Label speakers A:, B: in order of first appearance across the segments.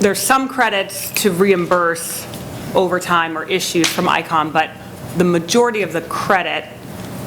A: there's some credits to reimburse overtime or issues from ICOM, but the majority of the credit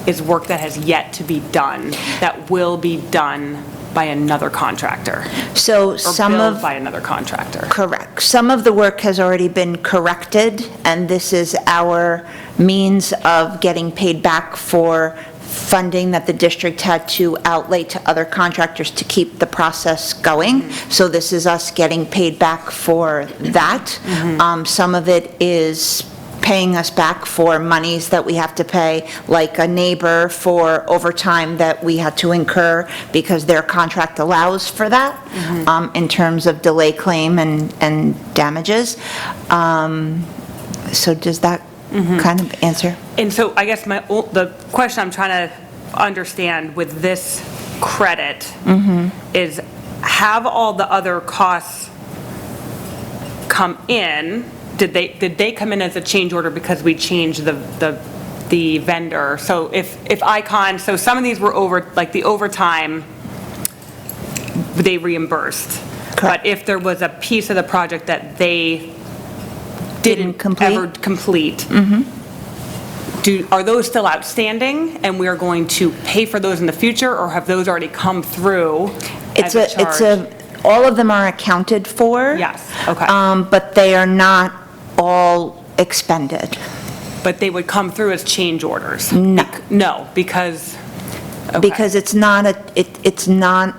A: is work that has yet to be done, that will be done by another contractor,
B: So
A: or
B: some
A: billed
B: of,
A: by another contractor.
B: correct, some of the work has already been corrected, and this is our means of getting paid back for funding that the district had to outlay to other contractors to keep the process going. So this is us getting paid back for that. Um, Some of it is paying us back for monies that we have to pay, like a neighbor for overtime that we had to incur because their contract allows for that,
A: Mm-hmm.
B: um, in terms of delay claim and, and damages. Um, So does that
A: Mm-hmm.
B: kind of answer?
A: And so I guess my, ol- the question I'm trying to understand with this credit is have all the other costs come in? Did they, did they come in as a change order because we changed the, the, the vendor? So if, if Icon, so some of these were over, like the overtime, they reimbursed.
B: Correct.
A: But if there was a piece of the project that they didn't
B: complete? Mm-hmm.
A: ever complete, do, are those still outstanding and we are going to pay for those in the future or have those already come through as
B: It's
A: a
B: a, it's
A: charge?
B: a, all of them are accounted for.
A: Yes, okay.
B: Um, But they are not all expended.
A: But they would come through as change orders?
B: Mm.
A: No. No, because, okay.
B: because it's not a, it, it's not,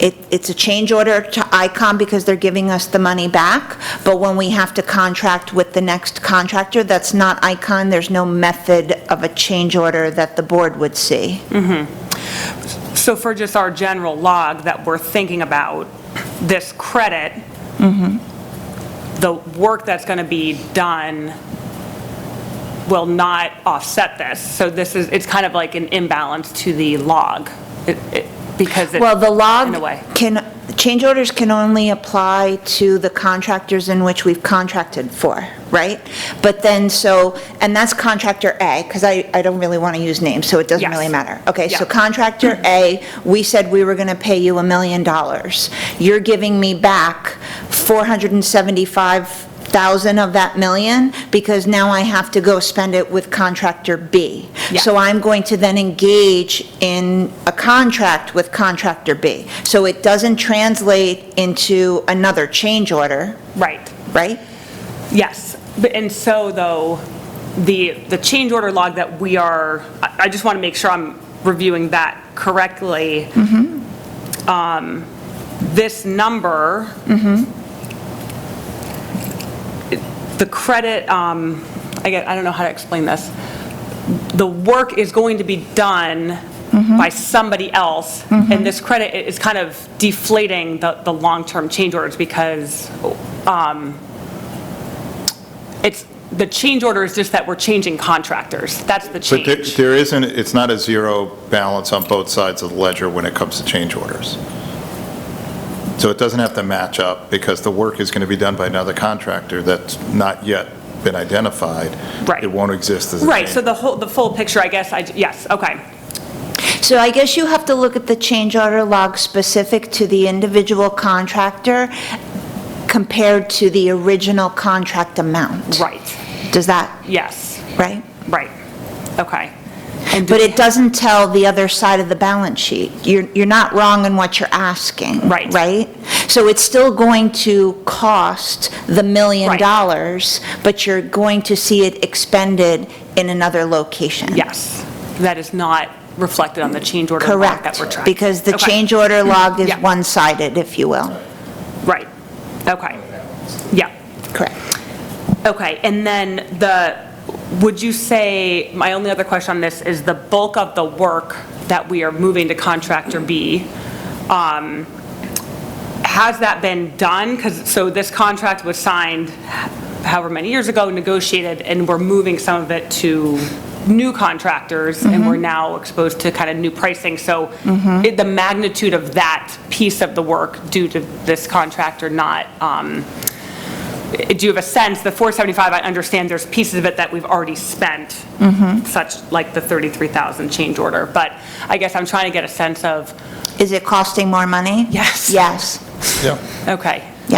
B: it, it's a change order to ICOM because they're giving us the money back, but when we have to contract with the next contractor, that's not ICON, there's no method of a change order that the board would see.
A: So for just our general log that we're thinking about, this credit, the work that's going to be done will not offset this. So this is, it's kind of like an imbalance to the log, It- it- because it's...
B: Well, the
A: In a
B: log
A: way.
B: can, change orders can only apply to the contractors in which we've contracted for, right? But then, so, and that's contractor A, because I, I don't really want to use names, so it doesn't
A: Yes.
B: really matter. Okay, so
A: Yeah.
B: contractor A, we said we were going to pay you a million dollars. You're giving me back 475,000 of that million, because now I have to go spend it with contractor B.
A: Yeah.
B: So I'm going to then engage in a contract with contractor B. So it doesn't translate into another change order,
A: Right.
B: right?
A: Yes, but, and so though, the, the change order log that we are, I I just want to make sure I'm reviewing that correctly. Um, This number, it- the credit, um, I get, I don't know how to explain this. The work is going to be done by somebody else, and this credit i- is kind of deflating the, the long-term change orders because um, it's, the change order is just that we're changing contractors. That's the
C: But there-
A: change.
C: there isn't, it's not a zero balance on both sides of the ledger when it comes to change orders. So it doesn't have to match up because the work is going to be done by another contractor that's not yet been identified.
A: Right.
C: It won't exist as a
A: Right, so
C: change.
A: the whole, the full picture, I guess, I, j- yes, okay.
B: So I guess you have to look at the change order log specific to the individual contractor compared to the original contract amount.
A: Right,
B: Does that,
A: yes,
B: right?
A: right, okay. And do-
B: But it doesn't tell the other side of the balance sheet. You're, you're not wrong in what you're asking.
A: Right.
B: Right? So it's still going to cost the million
A: Right.
B: dollars, but you're going to see it expended in another location.
A: Yes, that is not reflected on the change order log that
B: Correct.
A: we're tracking.
B: Because the
A: Okay,
B: change order log is
A: Yeah.
B: one-sided, if you will.
A: Right, okay, yeah.
B: Correct.
A: Okay, and then the, would you say, my only other question on this is the bulk of the work that we are moving to contractor B, um, has that been done? Because, so this contract was signed however many years ago, negotiated, and we're moving some of it to new contractors, and we're now exposed to kind of new pricing. So it- the magnitude of that piece of the work due to this contractor not um, do you have a sense, the 475, I understand there's pieces of it that we've already spent, such like the 33,000 change order, but I guess I'm trying to get a sense of,
B: Is it costing more money?
A: Yes.
B: Yes.
C: Yeah.
A: okay,